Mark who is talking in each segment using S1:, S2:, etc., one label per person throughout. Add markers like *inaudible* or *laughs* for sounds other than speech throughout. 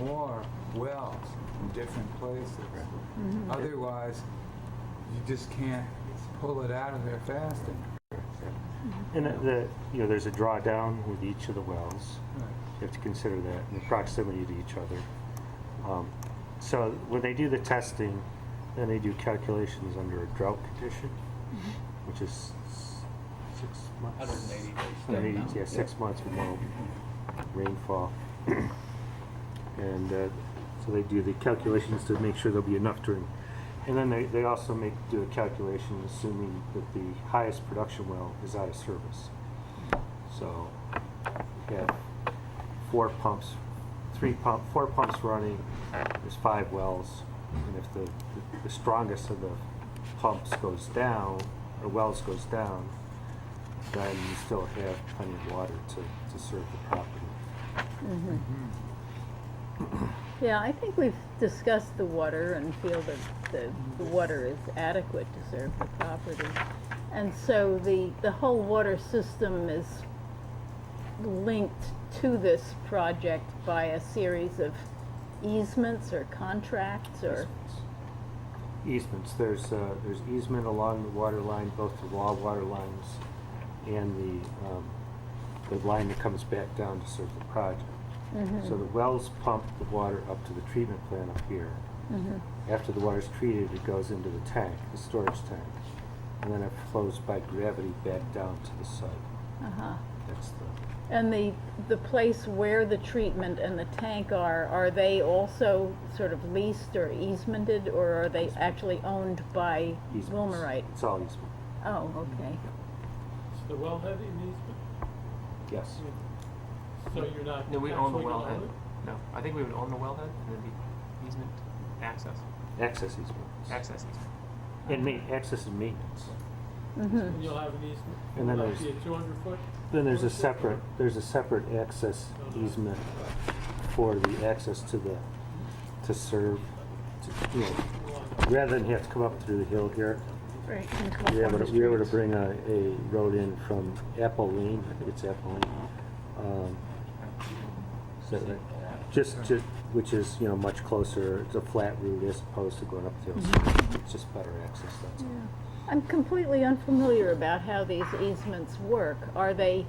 S1: are wells in different places. Otherwise, you just can't pull it out of there fast enough.
S2: And uh, the, you know, there's a drawdown with each of the wells.
S1: Right.
S2: You have to consider that and the proximity to each other. Um, So when they do the testing, then they do calculations under a drought condition, which is s- six months.
S3: 180 days.
S2: 180, yeah, six months with no rainfall. And uh, so they do the calculations to make sure there'll be enough during. And then they, they also make, do a calculation assuming that the highest production well is out of service. So you have four pumps, three pump, four pumps running, there's five wells. And if the, the strongest of the pumps goes down, or wells goes down, then you still have plenty of water to, to serve the property.
S4: Yeah, I think we've discussed the water and feel that the, the water is adequate to serve the property. And so the, the whole water system is linked to this project by a series of easements or contracts or,
S2: Easements, there's, uh, there's easement along the water line, both the raw water lines and the, um, the line that comes back down to serve the project. So the wells pump the water up to the treatment plant up here. After the water's treated, it goes into the tank, the storage tank, and then it flows by gravity back down to the site.
S4: uh
S2: That's the,
S4: And the, the place where the treatment and the tank are, are they also sort of leased or easemented or are they actually owned by
S2: easements.
S4: Wilmerite?
S2: It's all easement,
S4: Oh, okay.
S5: Is the wellhead in easement?
S2: yes.
S5: So you're not.
S6: No, we own the
S5: actually gonna own
S6: wellhead. No, I think we would own the wellhead and then the easement access,
S2: Access easement.
S6: access easement.
S2: And ma- access and maintenance.
S4: Mm-hmm.
S5: it? And you'll have an easement?
S2: And then
S5: Will
S2: there's-
S5: that be a two hundred foot?
S2: Then there's a separate, there's a separate access easement for the access to the, to serve, to, you know, rather than have to come up through the hill here,
S4: Right.
S2: we were able to, we were able to bring a, a road in from Apple Lane, I think it's Apple Lane. um, Is that right? Just, just, which is, you know, much closer, it's a flat route as opposed to going up the hill. It's just better access, that's all.
S4: I'm completely unfamiliar about how these easements work. Are they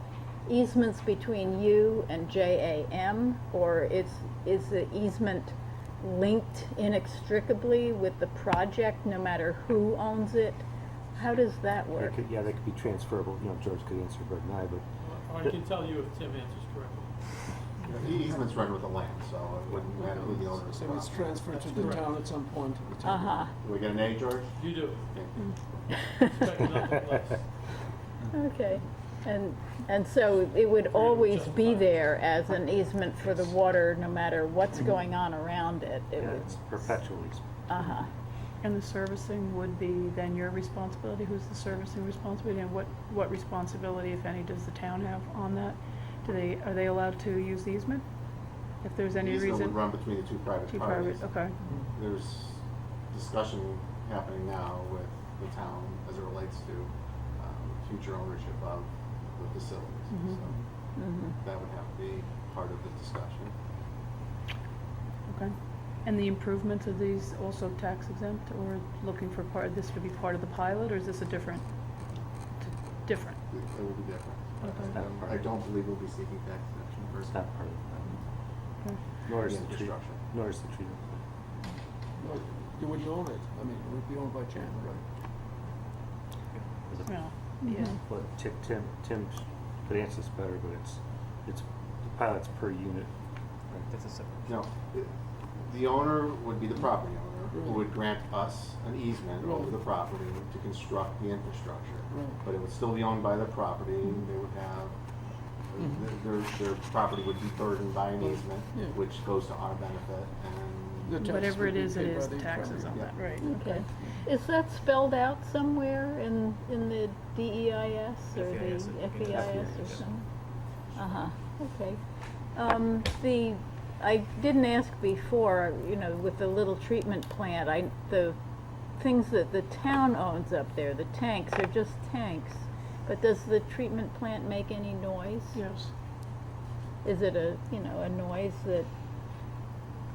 S4: easements between you and JAM, or is, is the easement linked inextricably with the project, no matter who owns it? How does that
S2: They
S4: work?
S2: could- Yeah, they could be transferable, you know, George could answer better than I, but
S5: Or I can tell you if Tim answers correctly.
S7: The easements run with the land, so it wouldn't matter who the owner is.
S8: So it's transferred to the town at some point.
S4: Uh-huh,
S7: Do we get an A, George?
S5: You do.
S7: Yeah.
S5: Expect nothing
S2: *laughs*
S5: less.
S4: *laughs* okay. And, and so it would always be there as an easement for the water, no matter what's going on around it? It
S2: Mm-hmm. yeah,
S4: would-
S2: it's perpetual easement.
S4: Uh-huh.
S9: And the servicing would be then your responsibility, who's the servicing responsibility, and what, what responsibility, if any, does the town have on that? Do they, are they allowed to use the easement? If there's
S7: The
S9: any
S7: easement would
S9: reason?
S7: run between the two private
S9: Two
S7: parties.
S9: private, okay,
S7: There's discussion happening now with the town as it relates to um, future ownership of the facilities.
S9: Mm-hmm.
S7: So
S4: Mm-hmm.
S7: That would have to be part of the discussion.
S9: okay. And the improvements, are these also tax exempt, or looking for part, this would be part of the pilot, or is this a different, different?
S7: It it will be different.
S9: Okay.
S7: Um, I don't believe we'll be seeking tax exemption
S2: It's
S7: versus
S2: not part of the,
S9: Okay.
S2: nor is
S7: Yeah,
S2: the tree,
S7: construction.
S2: nor is the treatment.
S8: But You wouldn't own it. I mean, it would be owned by Jan, right?
S9: Well, yeah,
S2: Well, Ti- Tim, Tim could answer this better, but it's, it's, the pilot's per unit.
S6: Right, that's a separate.
S7: No, it- the owner would be the property owner, who would grant us an easement over the
S8: Right.
S7: property to construct the infrastructure.
S8: Right. Mm-hmm.
S7: But it would still be owned by the property, and they would have, th- their, their property would be burdened by an easement,
S8: Yeah.
S7: which goes to our benefit,
S8: The
S7: and
S8: taxes
S9: whatever
S8: would
S9: it
S8: be
S9: is, it
S8: paid by
S9: is
S8: the
S9: taxes on
S8: primary-
S9: that, right,
S4: Okay. Is that spelled out somewhere in, in the DEIS or the
S6: FEIS, E I think it is.
S4: FEIS or
S6: Yeah.
S4: something? Uh-huh, okay. Um, the, I didn't ask before, you know, with the little treatment plant, I, the things that the town owns up there, the tanks are just tanks. But does the treatment plant make any noise?
S9: yes.
S4: Is it a, you know, a noise that